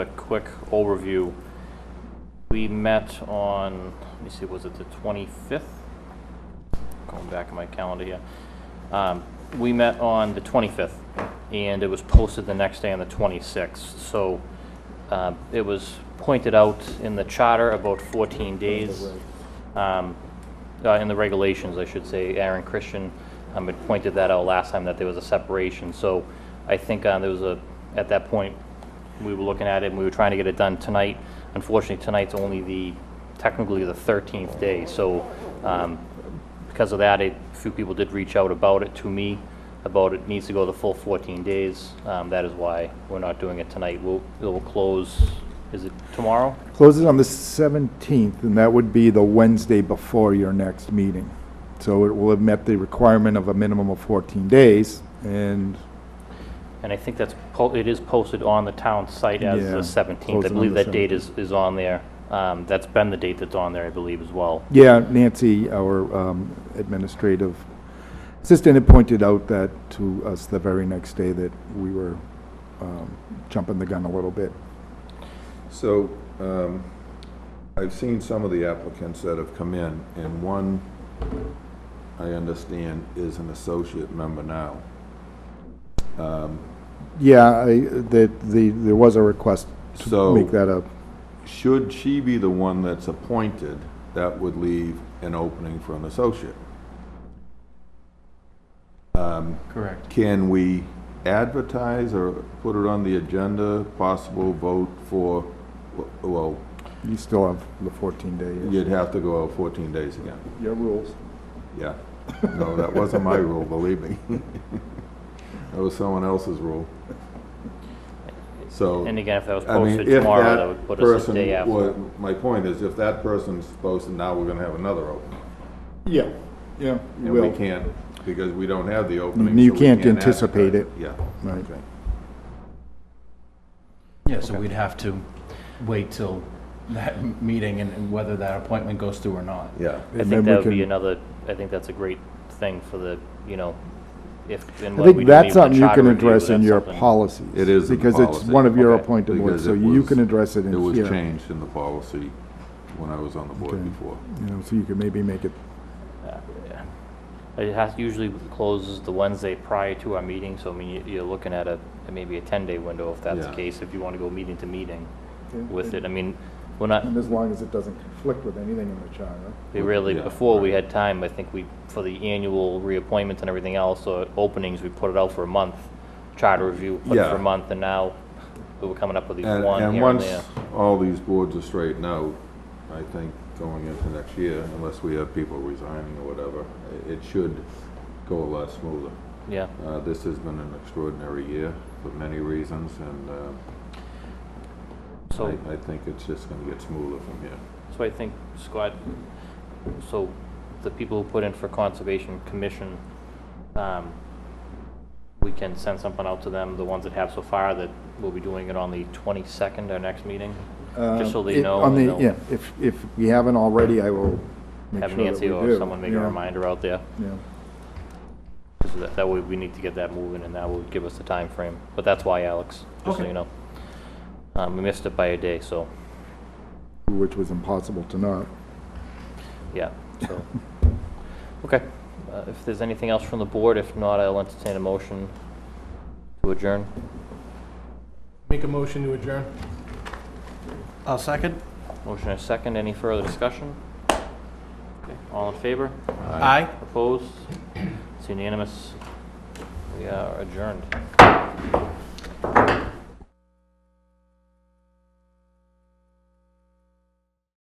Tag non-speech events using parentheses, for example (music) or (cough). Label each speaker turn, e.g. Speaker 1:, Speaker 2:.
Speaker 1: a quick overview. We met on, let me see, was it the 25th? Going back in my calendar here. Um, We met on the 25th, and it was posted the next day on the 26th. So um, it was pointed out in the charter about 14 days. um, uh, In the regulations, I should say, Aaron Christian um, had pointed that out last time, that there was a separation. So I think uh, there was a, at that point, we were looking at it, and we were trying to get it done tonight. Unfortunately, tonight's only the, technically the 13th day, so um, because of that, a few people did reach out about it to me, about it needs to go the full 14 days. Um, That is why we're not doing it tonight. We'll, it will close, is it tomorrow?
Speaker 2: Closes on the 17th, and that would be the Wednesday before your next meeting. So it will have met the requirement of a minimum of 14 days, and
Speaker 1: And I think that's, po- it is posted on the town site as the
Speaker 2: Yeah,
Speaker 1: 17th. I
Speaker 2: posted on
Speaker 1: believe
Speaker 2: the
Speaker 1: that date is, is on there. Um, That's been the date that's on there, I believe, as well.
Speaker 2: yeah, Nancy, our um, administrative assistant, had pointed out that to us the very next day that we were um, jumping the gun a little bit.
Speaker 3: So, um, I've seen some of the applicants that have come in, and one, I understand, is an associate member now.
Speaker 2: Yeah, I, that, the, there was a request to
Speaker 3: So-
Speaker 2: make that up.
Speaker 3: Should she be the one that's appointed, that would leave an opening for an associate.
Speaker 4: Correct.
Speaker 3: Um, Can we advertise or put it on the agenda, possible vote for, well,
Speaker 2: You still have the 14 days.
Speaker 3: you'd have to go out 14 days again.
Speaker 2: Your rules.
Speaker 3: Yeah. No, that wasn't my rule, believe me. (laughs) That was someone else's rule. So,
Speaker 1: And again, if that was
Speaker 3: I mean,
Speaker 1: posted
Speaker 3: if
Speaker 1: tomorrow, that would
Speaker 3: that
Speaker 1: put us a
Speaker 3: person,
Speaker 1: day after.
Speaker 3: wa- my point is, if that person's posted, now we're gonna have another opening.
Speaker 2: Yeah, yeah,
Speaker 3: And we can't, because we don't have the opening.
Speaker 2: You
Speaker 3: so we
Speaker 2: can't
Speaker 3: advertise
Speaker 2: anticipate it.
Speaker 3: Yeah.
Speaker 2: Right.
Speaker 3: okay.
Speaker 4: Yeah, so we'd have to wait till that m- meeting and- and whether that appointment goes through or not.
Speaker 3: Yeah.
Speaker 1: I
Speaker 2: then
Speaker 1: think
Speaker 2: we
Speaker 1: that would be
Speaker 2: can-
Speaker 1: another, I think that's a great thing for the, you know, if, and when
Speaker 2: I think
Speaker 1: we do meet
Speaker 2: that's
Speaker 1: with the
Speaker 2: something you
Speaker 1: charter
Speaker 2: can
Speaker 1: review, that's
Speaker 2: address in your
Speaker 1: something.
Speaker 2: policies.
Speaker 3: It is in the
Speaker 2: Because it's
Speaker 3: policy.
Speaker 2: one of your
Speaker 1: Okay.
Speaker 2: appointed boards,
Speaker 3: Because
Speaker 2: so
Speaker 3: it
Speaker 2: you
Speaker 3: was-
Speaker 2: can address it in
Speaker 3: It was
Speaker 2: here.
Speaker 3: changed in the policy when I was on the board
Speaker 2: Okay.
Speaker 3: before.
Speaker 2: You know, so you could maybe make it,
Speaker 1: It has, usually closes the Wednesday prior to our meeting, so I mean, you- you're looking at a, maybe a 10-day window if that's the
Speaker 3: Yeah.
Speaker 1: case, if you want to go meeting to meeting
Speaker 2: Yeah.
Speaker 1: with it. I mean, we're not,
Speaker 2: and as long as it doesn't conflict with anything in the charter.
Speaker 1: We really,
Speaker 3: Yeah,
Speaker 1: before we had time, I think we, for the annual reappointments and everything else, or openings, we put it out for a month. Charter review, put it for
Speaker 3: Yeah.
Speaker 1: a month, and now we were coming up with these
Speaker 3: And,
Speaker 1: one
Speaker 3: and
Speaker 1: here and
Speaker 3: once
Speaker 1: there.
Speaker 3: all these boards are straightened out, I think going into next year, unless we have people resigning or whatever, i- it should go a lot smoother.
Speaker 1: Yeah,
Speaker 3: Uh, this has been an extraordinary year for many reasons, and, uh,
Speaker 1: so,
Speaker 3: I, I think it's just gonna get smoother from here.
Speaker 1: so I think, Scott, so the people who put in for Conservation Commission, um, we can send something out to them, the ones that have so far, that we'll be doing it on the twenty-second, our next meeting? Just so they
Speaker 2: Um, It-
Speaker 1: know.
Speaker 2: on
Speaker 1: and
Speaker 2: the-
Speaker 1: they'll
Speaker 2: Yeah, if, if we haven't already, I will make
Speaker 1: Have
Speaker 2: sure that we
Speaker 1: Nancy
Speaker 2: do.
Speaker 1: or someone make a
Speaker 2: Yeah,
Speaker 1: reminder out there.
Speaker 2: Yeah.
Speaker 1: So that, that way we need to get that moving and that will give us the time frame. But that's why, Alex, just so
Speaker 4: Okay.
Speaker 1: you know. Um, we missed it by a day, so,
Speaker 2: Which was impossible to not.
Speaker 1: yeah, so. Okay, uh, if there's anything else from the board, if not, I'll entertain a motion to adjourn.
Speaker 5: Make a motion to adjourn.
Speaker 4: I'll second.
Speaker 1: Motion and a second, any further discussion? Okay, All in favor?
Speaker 4: Aye.
Speaker 1: Opposed? It's unanimous. We are adjourned.